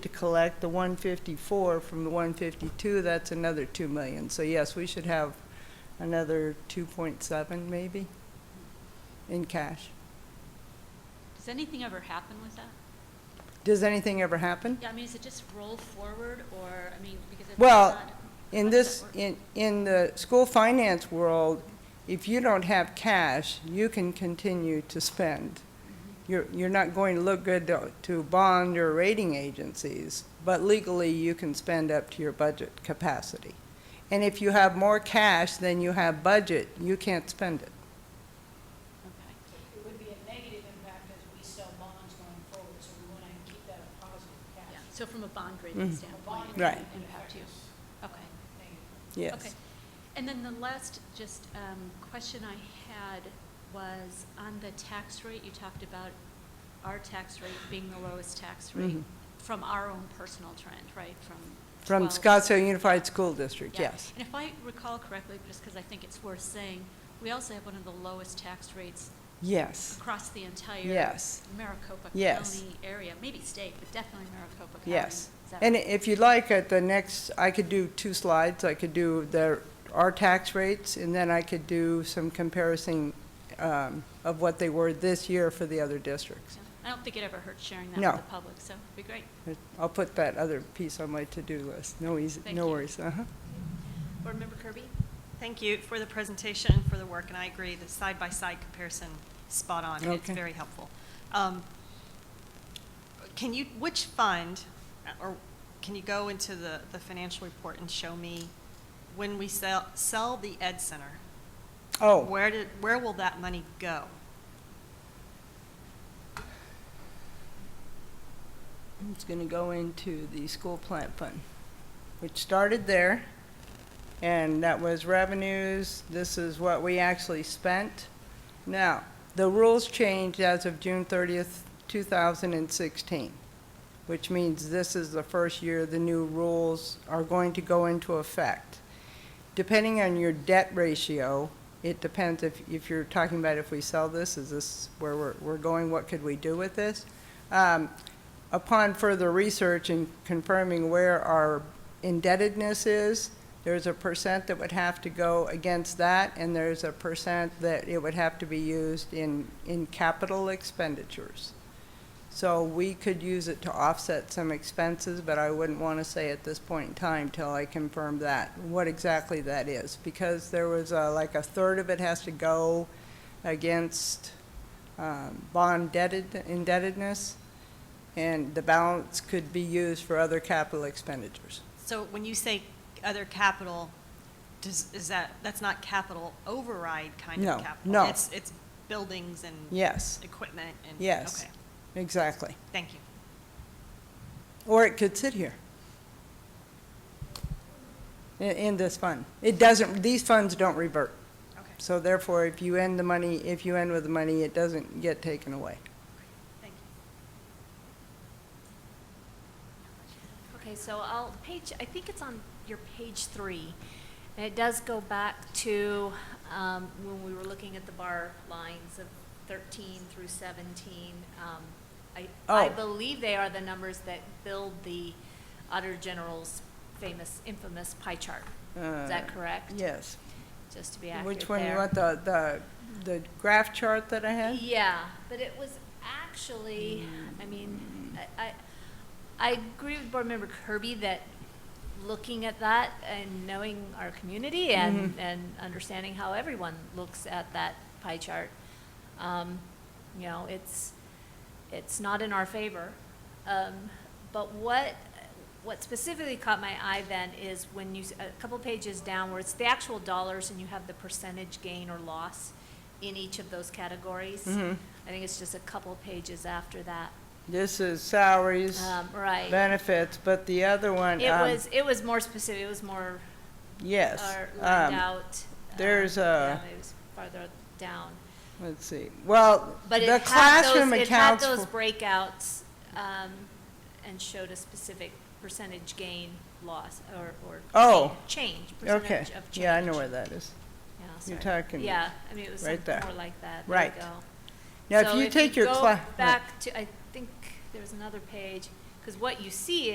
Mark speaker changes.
Speaker 1: to collect the 154 from the 152, that's another 2 million. So yes, we should have another 2.7 maybe in cash.
Speaker 2: Does anything ever happen with that?
Speaker 1: Does anything ever happen?
Speaker 2: Yeah, I mean, is it just rolled forward or, I mean, because it's
Speaker 1: Well,
Speaker 2: not-
Speaker 1: in
Speaker 2: how does
Speaker 1: this,
Speaker 2: that work?
Speaker 1: in, in the school finance world, if you don't have cash, you can continue to spend. You're, you're not going to look good to, to bond or rating agencies, but legally, you can spend up to your budget capacity. And if you have more cash than you have budget, you can't spend it.
Speaker 2: Okay.
Speaker 3: It would be a negative impact as we sell bonds going forward, so we want to keep that a positive
Speaker 2: Yeah,
Speaker 3: cash.
Speaker 2: so from a bond rating
Speaker 1: Mhm.
Speaker 3: A bond
Speaker 2: standpoint, it
Speaker 1: Right.
Speaker 2: wouldn't impact you. Okay.
Speaker 3: Negative.
Speaker 1: Yes.
Speaker 2: Okay. And then the last just um, question I had was on the tax rate, you talked about our tax rate being the lowest tax rate
Speaker 1: Mhm.
Speaker 2: from our own personal trend, right, from
Speaker 1: From
Speaker 2: 12
Speaker 1: Scottsdale Unified School District,
Speaker 2: Yeah.
Speaker 1: yes.
Speaker 2: And if I recall correctly, just because I think it's worth saying, we also have one of the lowest tax rates
Speaker 1: Yes.
Speaker 2: across the entire
Speaker 1: Yes.
Speaker 2: Maricopa
Speaker 1: Yes.
Speaker 2: County area, maybe state, but definitely Maricopa County.
Speaker 1: Yes.
Speaker 2: Is that
Speaker 1: And
Speaker 2: right?
Speaker 1: if you'd like, at the next, I could do two slides. I could do the, our tax rates, and then I could do some comparison um, of what they were this year for the other districts.
Speaker 2: So, I don't think it ever hurts sharing that
Speaker 1: No.
Speaker 2: with the public, so it'd be great.
Speaker 1: I'll put that other piece on my to-do list. No easy,
Speaker 2: Thank
Speaker 1: no
Speaker 2: you.
Speaker 1: worries. Uh-huh.
Speaker 2: Board Member Kirby?
Speaker 4: Thank you for the presentation and for the work, and I agree, the side-by-side comparison, spot on. It's
Speaker 1: Okay.
Speaker 4: very helpful. Um, Can you, which fund, or can you go into the, the financial report and show me when we sell, sell the Ed Center?
Speaker 1: Oh,
Speaker 4: Where did, where will that money go?
Speaker 1: it's going to go into the school plant fund, which started there, and that was revenues. This is what we actually spent. Now, the rules changed as of June 30th, 2016, which means this is the first year the new rules are going to go into effect. Depending on your debt ratio, it depends if, if you're talking about if we sell this, is this where we're, we're going, what could we do with this? Um, Upon further research and confirming where our indebtedness is, there's a percent that would have to go against that, and there's a percent that it would have to be used in, in capital expenditures. So we could use it to offset some expenses, but I wouldn't want to say at this point in time till I confirm that, what exactly that is. Because there was uh, like a third of it has to go against um, bond debted- indebtedness, and the balance could be used for other capital expenditures.
Speaker 4: So when you say other capital, does, is that, that's not capital override kind
Speaker 1: No,
Speaker 4: of capital?
Speaker 1: no.
Speaker 4: It's, it's buildings and
Speaker 1: Yes,
Speaker 4: equipment and?
Speaker 1: Yes.
Speaker 4: Okay,
Speaker 1: exactly.
Speaker 4: thank you.
Speaker 1: Or it could sit here i- in this fund. It doesn't, these funds don't revert.
Speaker 4: Okay,
Speaker 1: So therefore, if you end the money, if you end with the money, it doesn't get taken away.
Speaker 4: thank you.
Speaker 5: Okay, so I'll, page, I think it's on your page three, and it does go back to, um, when we were looking at the bar lines of thirteen through seventeen. Um, I, I
Speaker 1: Oh.
Speaker 5: believe they are the numbers that build the Auditor General's famous, infamous pie chart. Is that
Speaker 1: Uh,
Speaker 5: correct?
Speaker 1: Yes.
Speaker 5: Just to be accurate
Speaker 1: Which one, you
Speaker 5: there.
Speaker 1: want the, the, the graph chart that I had?
Speaker 5: Yeah, but it was actually, I mean, I, I, I agree with Board Member Kirby that looking at that and knowing our community and,
Speaker 1: Mhm.
Speaker 5: and understanding how everyone looks at that pie chart, um, you know, it's, it's not in our favor. Um, but what, what specifically caught my eye then is when you, s- a couple pages down where it's the actual dollars and you have the percentage gain or loss in each of those categories.
Speaker 1: Mhm.
Speaker 5: I think it's just a couple pages after that.
Speaker 1: This is salaries,
Speaker 5: Um, right.
Speaker 1: benefits, but the other one,
Speaker 5: It
Speaker 1: um,
Speaker 5: was, it was more specific, it was more,
Speaker 1: yes.
Speaker 5: or
Speaker 1: um,
Speaker 5: lined out. uh,
Speaker 1: there's a-
Speaker 5: Yeah, it was farther down.
Speaker 1: Let's see, well,
Speaker 5: But
Speaker 1: the
Speaker 5: it had
Speaker 1: classroom
Speaker 5: those, it had
Speaker 1: accounts
Speaker 5: those
Speaker 1: for,
Speaker 5: breakouts, um, and showed a specific percentage gain, loss, or, or.
Speaker 1: Oh.
Speaker 5: Change,
Speaker 1: okay,
Speaker 5: percentage of change.
Speaker 1: yeah, I know where that is.
Speaker 5: Yeah,
Speaker 1: You're
Speaker 5: sorry.
Speaker 1: talking
Speaker 5: Yeah, I mean, it was
Speaker 1: right
Speaker 5: something
Speaker 1: there.
Speaker 5: more like that. There you
Speaker 1: Right.
Speaker 5: go.
Speaker 1: Now,
Speaker 5: So
Speaker 1: if you take your
Speaker 5: go
Speaker 1: class.
Speaker 5: Back to, I think there was another page, because what you see